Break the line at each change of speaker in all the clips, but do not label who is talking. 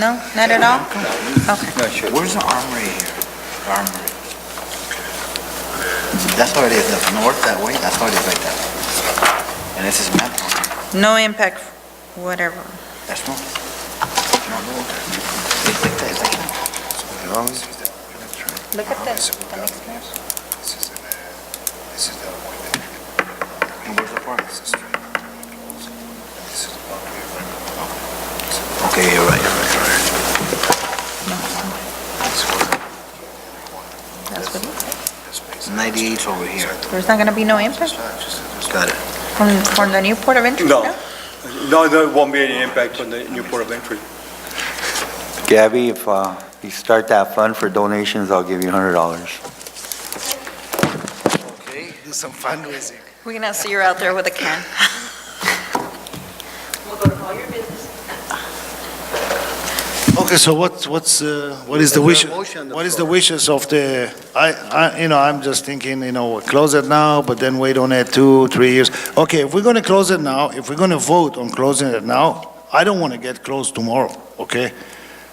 No, not at all? Okay.
No, sure. Where's the armory here? The Armory. That's how it is, up north that way, that's how it is like that. And this is map,
No impact, whatever.
that's north. Not north. It's like that, it's like that.
Look at the,
And where's the park? Okay, you're right, you're right, you're right.
that's what it is.
98's over here.
There's not gonna be no impact
Got it.
from, from the new port of entry?
No. No, there won't be any impact on the new port of entry.
Gabby, if uh, you start that fund for donations, I'll give you $100.
Okay, do some fundraising.
We're gonna see you're out there with a can.
Okay, so what's, what's, uh, what is the wish,
There's a motion on the
what is the wishes of the, I, I, you know, I'm just thinking, you know, we'll close it now, but then wait on it two, three years. Okay, if we're gonna close it now, if we're gonna vote on closing it now, I don't wanna get closed tomorrow, okay?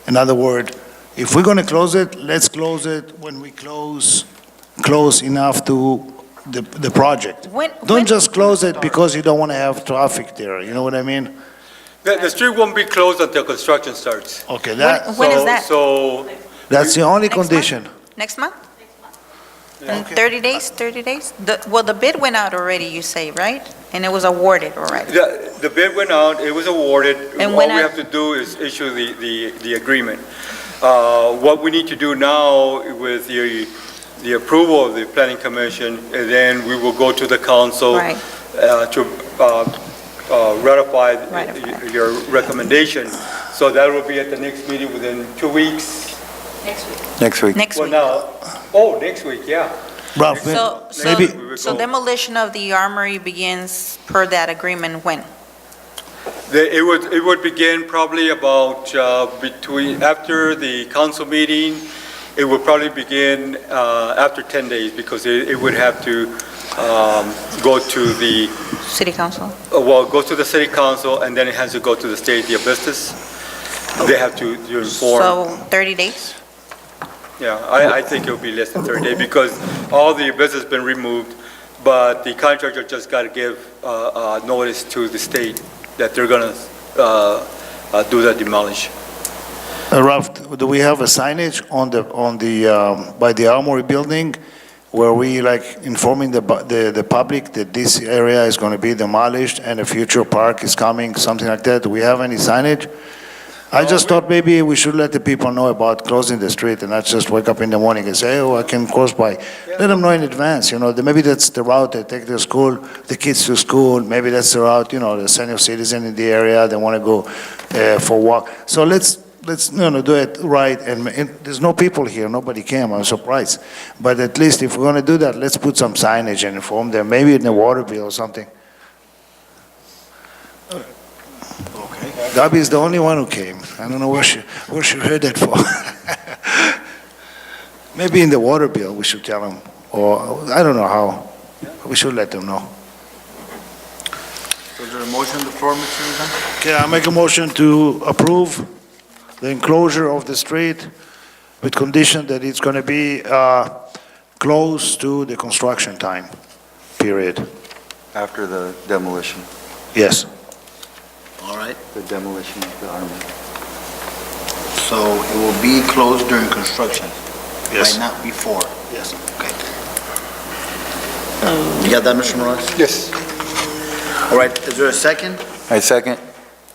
In other word, if we're gonna close it, let's close it when we close, close enough to the, the project.
When, when,
Don't just close it because you don't wanna have traffic there, you know what I mean?
The, the street won't be closed until construction starts.
Okay, that,
When is
So-
that?
So,
that's the only
Next one?
condition.
next month? In 30 days, 30 days? The, well, the bid went out already, you say, right? And it was awarded already.
the, the bid went out, it was awarded.
And
All
when
we
I-
have to do is issue the, the, the agreement. Uh, what we need to do now with the, the approval of the planning commission, and then we will go to the council.
Right,
uh, to uh, uh, ratify
Ratify.
y- your recommendation. So that will be at the next meeting within two weeks.
Next week.
next
Well,
week.
now, oh, next week, yeah.
Ralph,
So,
Maybe-
so, so demolition of the armory begins per that agreement when?
The- It would, it would begin probably about uh, between, after the council meeting. It would probably begin uh, after 10 days because it it would have to um, go to the
City council?
Uh, Well, it goes to the city council, and then it has to go to the state of business. They have to to inform.
So 30 days?
Yeah, I, I think it'll be less than 30 days, because all the business has been removed, but the contractor just got to give uh, uh, notice to the state that they're going to do the demolish.
Uh, Ralph, do we have a signage on the, on the, um, by the Armory Building where we like informing the, bu- the, the public that this area is going to be demolished and a future park is coming, something like that? Do we have any signage? I just thought maybe we should let the people know about closing the street and not just wake up in the morning and say, oh, I can cross by. Let them know in advance, you know, that maybe that's the route they take their school, the kids to school, maybe that's the route, you know, the senior citizen in the area, they want to go uh, for walk. So let's, let's, you know, do it right, and ma- and there's no people here, nobody came, I'm surprised. But at least if we're going to do that, let's put some signage and inform them, maybe in the water bill or something.
Okay.
Gabby is the only one who came. I don't know where she, where she heard that from. Maybe in the water bill, we should tell them, or, I don't know how. We should let them know.
So is there a motion on the floor, Mr. Lozano?
Okay, I make a motion to approve the enclosure of the street with condition that it's going to be uh, close to the construction time, period.
After the demolition,
Yes.
All right,
the demolition of the armory.
so it will be closed during construction? Right, not before?
Yes.
Okay. You got that, Mr. Morales?
Yes.
All right, is there a second?
I second.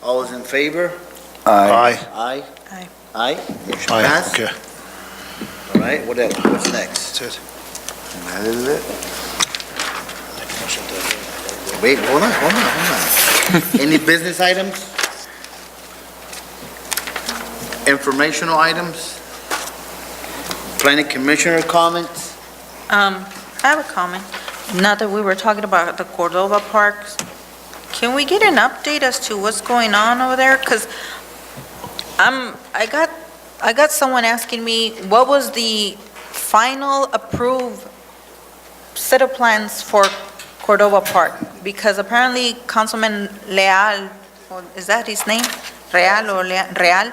All is in favor?
Aye.
Aye?
Aye.
Aye? Motion
Aye,
passed.
okay.
All right, what else, what's next?
That's it.
That is it.
Wait, hold on, hold on, hold on. Any business items? Informational items? Planning commissioner comments?
Um, I have a comment. Now that we were talking about the Cordova parks, can we get an update as to what's going on over there? Because I'm, I got, I got someone asking me, what was the final approved set of plans for Cordova Park? Because apparently Councilman Leal, or is that his name? Real or Lea- Real?